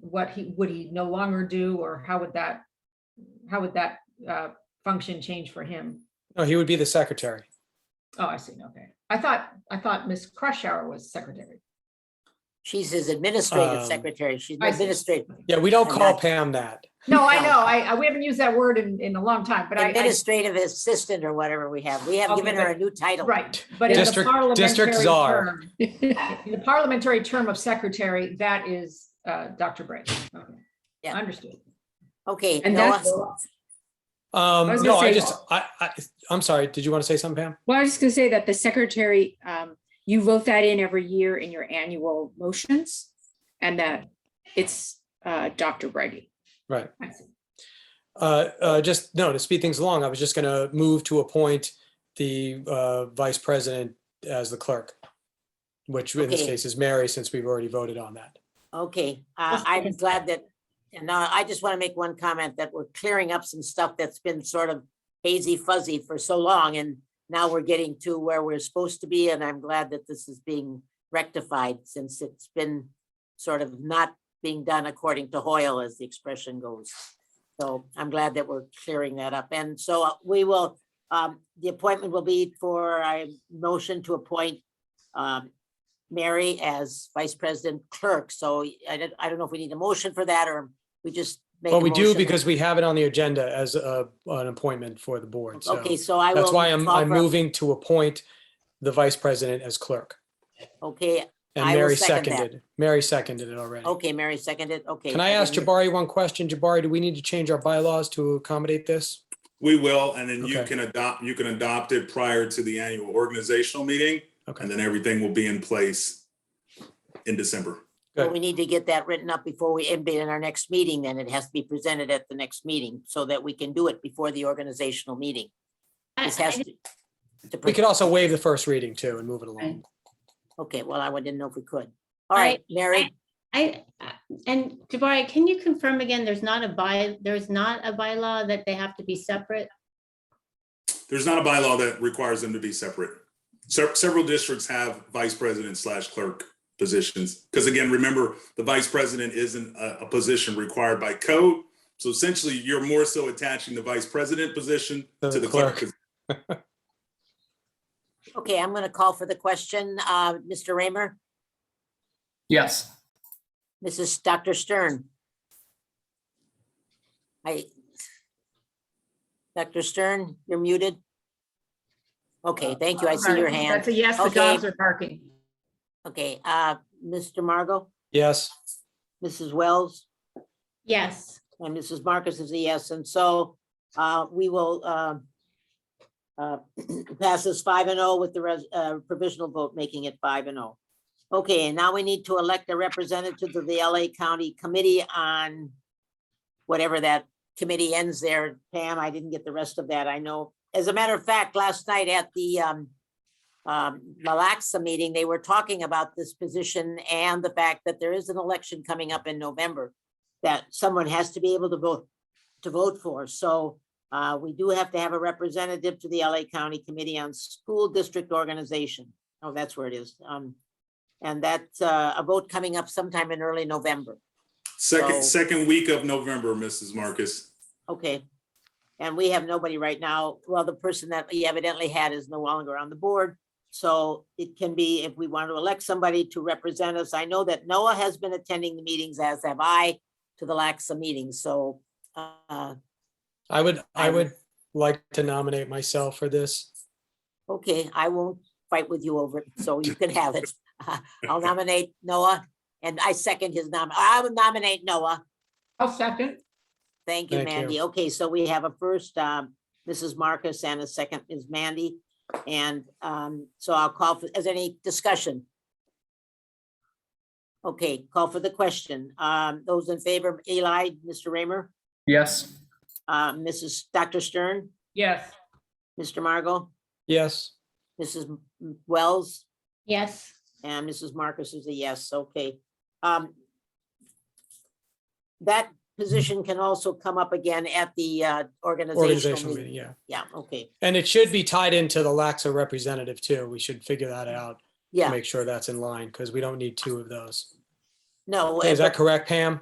what he, would he no longer do, or how would that, how would that uh, function change for him? No, he would be the secretary. Oh, I see, okay. I thought, I thought Ms. Crushhour was secretary. She's his administrative Um, secretary. She's I see. administrative, Yeah, we don't And call that's- Pam that. No, I know, I, I- we haven't used that word in, in a long time, but I- I, administrative assistant or whatever we have. We have Okay, given her but- a new title. right, but in the District- district parliamentary czar. term. In the parliamentary term of secretary, that is uh, Dr. Bray. Okay. Yeah. Understood. Okay, And Noah, that's, I Um, was no, gonna I say- just, I, I, I'm sorry. Did you want to say something, Pam? well, I was just gonna say that the secretary, um, you vote that in every year in your annual motions. And that it's, uh, Dr. Brady. Right. I see. Uh, uh, just, no, to speed things along, I was just going to move to appoint the, uh, vice president as the clerk, which in this Okay. case is Mary, since we've already voted on that. okay, uh, Just- I'm glad that, and uh, I just want to make one comment that we're clearing up some stuff that's been sort of hazy fuzzy for so long and now we're getting to where we're supposed to be and I'm glad that this is being rectified since it's been sort of not being done according to Hoyle, as the expression goes. So I'm glad that we're clearing that up. And so uh, we will, um, the appointment will be for a motion to appoint um, Mary as vice president clerk. So I don't, I don't know if we need a motion for that or we just. make Well, a we do motion. because we have it on the agenda as a, an appointment for the board. So Okay, so I will. that's why I'm, call I'm for a- moving to appoint the vice president as clerk. Okay, And I will Mary second that. seconded, Mary seconded it already. okay, Mary seconded, okay. Can I ask didn't- Jabari one question? Jabari, do we need to change our bylaws to accommodate this? We will, and then you Okay. can adopt, you can adopt it prior to the annual organizational meeting, Okay, and then everything will be in place in December. Well, Good. we need to get that written up before we, end it in our next meeting, then it has to be presented at the next meeting so that we can do it before the organizational meeting. This has to. to we pre- could also waive the first reading too and move it along. Okay, well, I didn't know if we could. All I- right, Mary, I, and Jabari, can you confirm again, there's not a by, there's not a bylaw that they have to be separate? There's not a bylaw that requires them to be separate. Se- Several districts have vice president slash clerk positions. Because again, remember, the vice president isn't a, a position required by code. So essentially, you're more so attaching the vice president position To to the the clerk. clerk. okay, I'm gonna call for the question. Uh, Mr. Raymer, Yes. Mrs. Dr. Stern. I. Dr. Stern, you're muted. Okay, thank you. I see your hand. That's a yes, the Okay. dogs are barking. Okay, uh, Mr. Margot, Yes, Mrs. Wells? Yes, And Mrs. Marcus is a yes, and so uh, we will um, uh, pass this five and oh with the res- uh, provisional vote, making it five and oh. Okay, and now we need to elect a representative to the LA County Committee on whatever that committee ends there. Pam, I didn't get the rest of that, I know. As a matter of fact, last night at the um, um, Malaxa meeting, they were talking about this position and the fact that there is an election coming up in November that someone has to be able to vote, to vote for. So uh, we do have to have a representative to the LA County Committee on School District Organization. Oh, that's where it is. Um, And that's uh, a vote coming up sometime in early November. Second, So- second week of November, Mrs. Marcus. Okay. And we have nobody right now. Well, the person that we evidently had is no longer on the board. So it can be if we want to elect somebody to represent us. I know that Noah has been attending the meetings, as have I, to the Laxa meetings. So uh, I would, I I'm- would like to nominate myself for this. Okay, I won't fight with you over it, so you can have it. I'll nominate Noah, and I second his nom, I would nominate Noah. I'll second. Thank you, Thank you. Mandy. Okay, so we have a first, um, Mrs. Marcus, and a second is Mandy. And um, so I'll call for, is there any discussion? Okay, call for the question. Um, Those in favor, Eli, Mr. Raymer, Yes. uh, Mrs. Dr. Stern, Yes. Mr. Margot, Yes, Mrs. Wells, yes. And Mrs. Marcus is a yes, okay. Um, That position can also come up again at the uh, organizational organizational meeting. meeting, yeah. Yeah, okay, And it should be tied into the Laxa representative too. We should figure that out. to yeah, Make sure that's in line because we don't need two of those. no. Is that but- correct, Pam?